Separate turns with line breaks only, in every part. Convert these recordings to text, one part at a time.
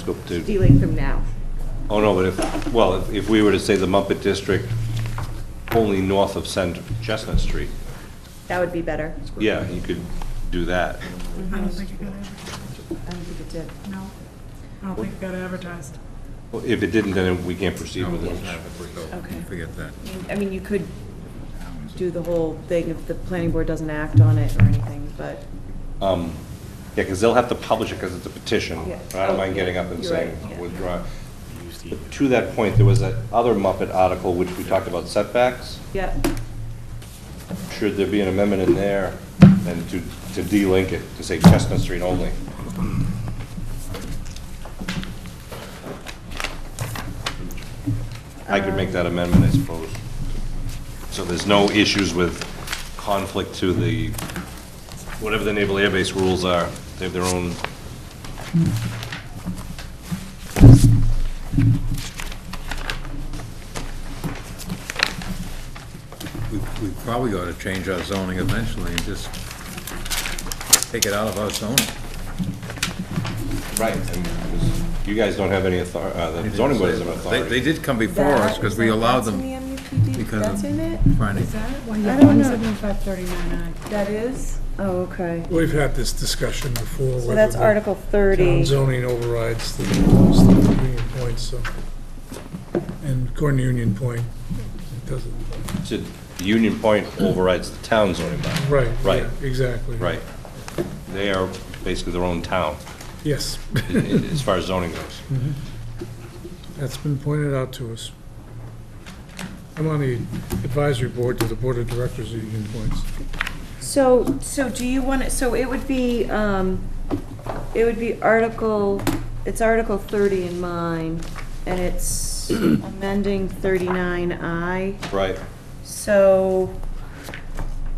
scope to,
stealing from now.
oh no, but if, well, if- if we were to say the Muppet District only north of Cent Chestnut Street,
That would be better.
yeah, you could do that.
I don't think it got,
I don't think it did.
ad- no, I don't think it got advertised.
Well, If it didn't, then we can't proceed with it.
Okay.
Okay. Forget that.
I mean, you could do the whole thing if the planning board doesn't act on it or anything, but
Um, Yeah, because they'll have to publish it because it's a petition.
Yeah.
I don't mind getting up and
You're
saying
right, yeah.
withdraw. But To that point, there was that other Muppet article which we talked about setbacks.
yeah,
Should there be an amendment in there and to, to de-link it, to say Chestnut Street only? I could make that amendment, I suppose. So there's no issues with conflict to the, whatever the naval air base rules are, they have their own.
We, we probably ought to change our zoning eventually and just take it out of our zoning.
Right. You guys don't have any authority, uh, the zoning board doesn't have
They,
authority.
they did come before us because we allowed them because of.
That's in it?
finding-
that?
I don't know.
Seventy-five thirty-nine
That is? Oh, okay.
We've had this discussion before.
So
whether
that's
the
Article
Town
30.
zoning overrides the the Union Point, so, and according to Union Point, it doesn't,
So the Union Point overrides the town zoning bylaw.
right. yeah,
Right.
Exactly.
Right. They are basically their own town,
Yes,
i- i- as far as zoning goes.
Mm-hmm.
that's been pointed out to us. I'm on the advisory board to the Board of Directors of Union Points.
So, so do you want, to? so it would be, um, it would be Article, it's Article 30 in mine, and it's amending 39I.
Right.
So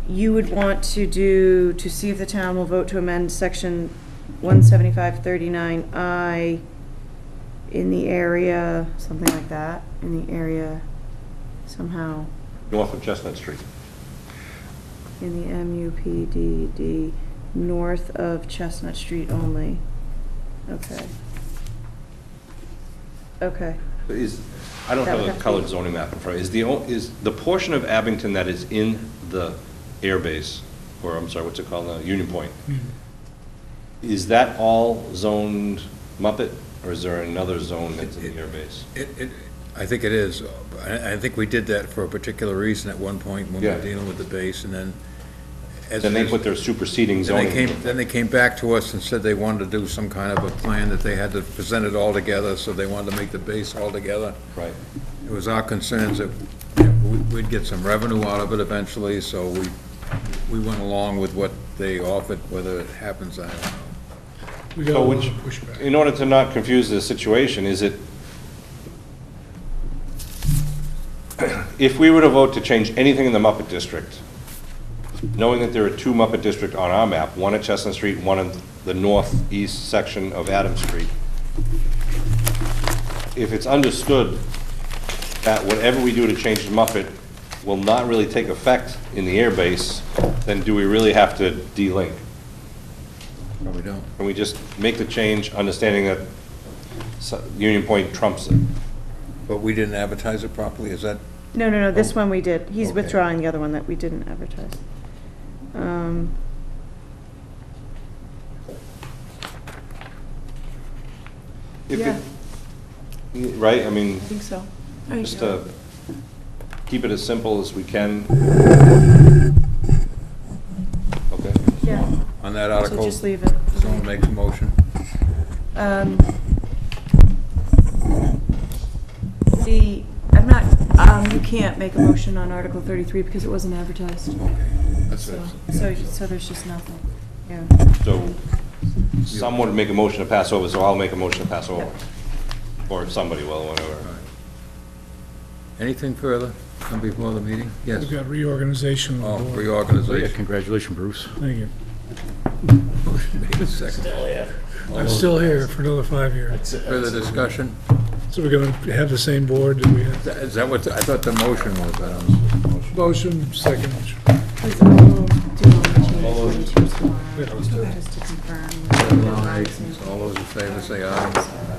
you would want to do, to see if the town will vote to amend section 17539I in the area, something like that, in the area somehow,
North of Chestnut Street.
in the MUPDD, north of Chestnut Street only. Okay. Okay.
But Is, I don't
That
have
would
a
have to
colored
be-
zoning map in front. Is the, o- is the portion of Abington that is in the airbase, or I'm sorry, what's it called now, Union Point?
Mm-hmm.
Is that all zoned Muppet, or is there another zone that's in the airbase?
It, it, I think it is. I, I think we did that for a particular reason at one point when we
Yeah.
were dealing with the base and then. as-
Then they put their superseding
Then
zoning.
they came, then they came back to us and said they wanted to do some kind of a plan that they had to present it all together, so they wanted to make the base all together.
Right.
It was our concerns that you know, we- we'd get some revenue out of it eventually, so we, we went along with what they offered, whether it happens, I don't know.
We got a
So
lot
which,
of pushback.
in order to not confuse the situation, is it, if we were to vote to change anything in the Muppet District, knowing that there are two Muppet District on our map, one at Chestnut Street, one in the northeast section of Adams Street, if it's understood that whatever we do to change the Muppet will not really take effect in the airbase, then do we really have to de-link?
Probably don't.
Can we just make the change, understanding that so- Union Point trumps it?
But we didn't advertise it properly, is that?
No, no, no, this one we did. He's
Okay.
withdrawing the other one that we didn't advertise. Um,
If
Yeah.
it- Right, I mean,
I think so.
just to keep it as simple as we can. Okay,
Yeah,
On that
so
article,
just leave it.
someone makes a motion?
Um, The, I'm not, um, you can't make a motion on Article 33 because it wasn't advertised.
That's
So,
it.
so so there's just nothing, yeah.
so someone would make a motion to pass over, so I'll make a motion to pass over. Or somebody will, whatever.
Anything further from before the meeting? Yes.
We've got reorganization
Oh,
of the board.
Yeah,
reorganization.
congratulations, Bruce.
Thank you.
Second.
Oh,
I'm still here for another five years.
Further discussion?
So we're going to have the same board that we had.
Is that- Is that what, I thought the motion was, I don't know.
Motion, second.
Please, I will do all the changes for you two tomorrow,
Yeah.
just to confirm.
All those in favor say aye.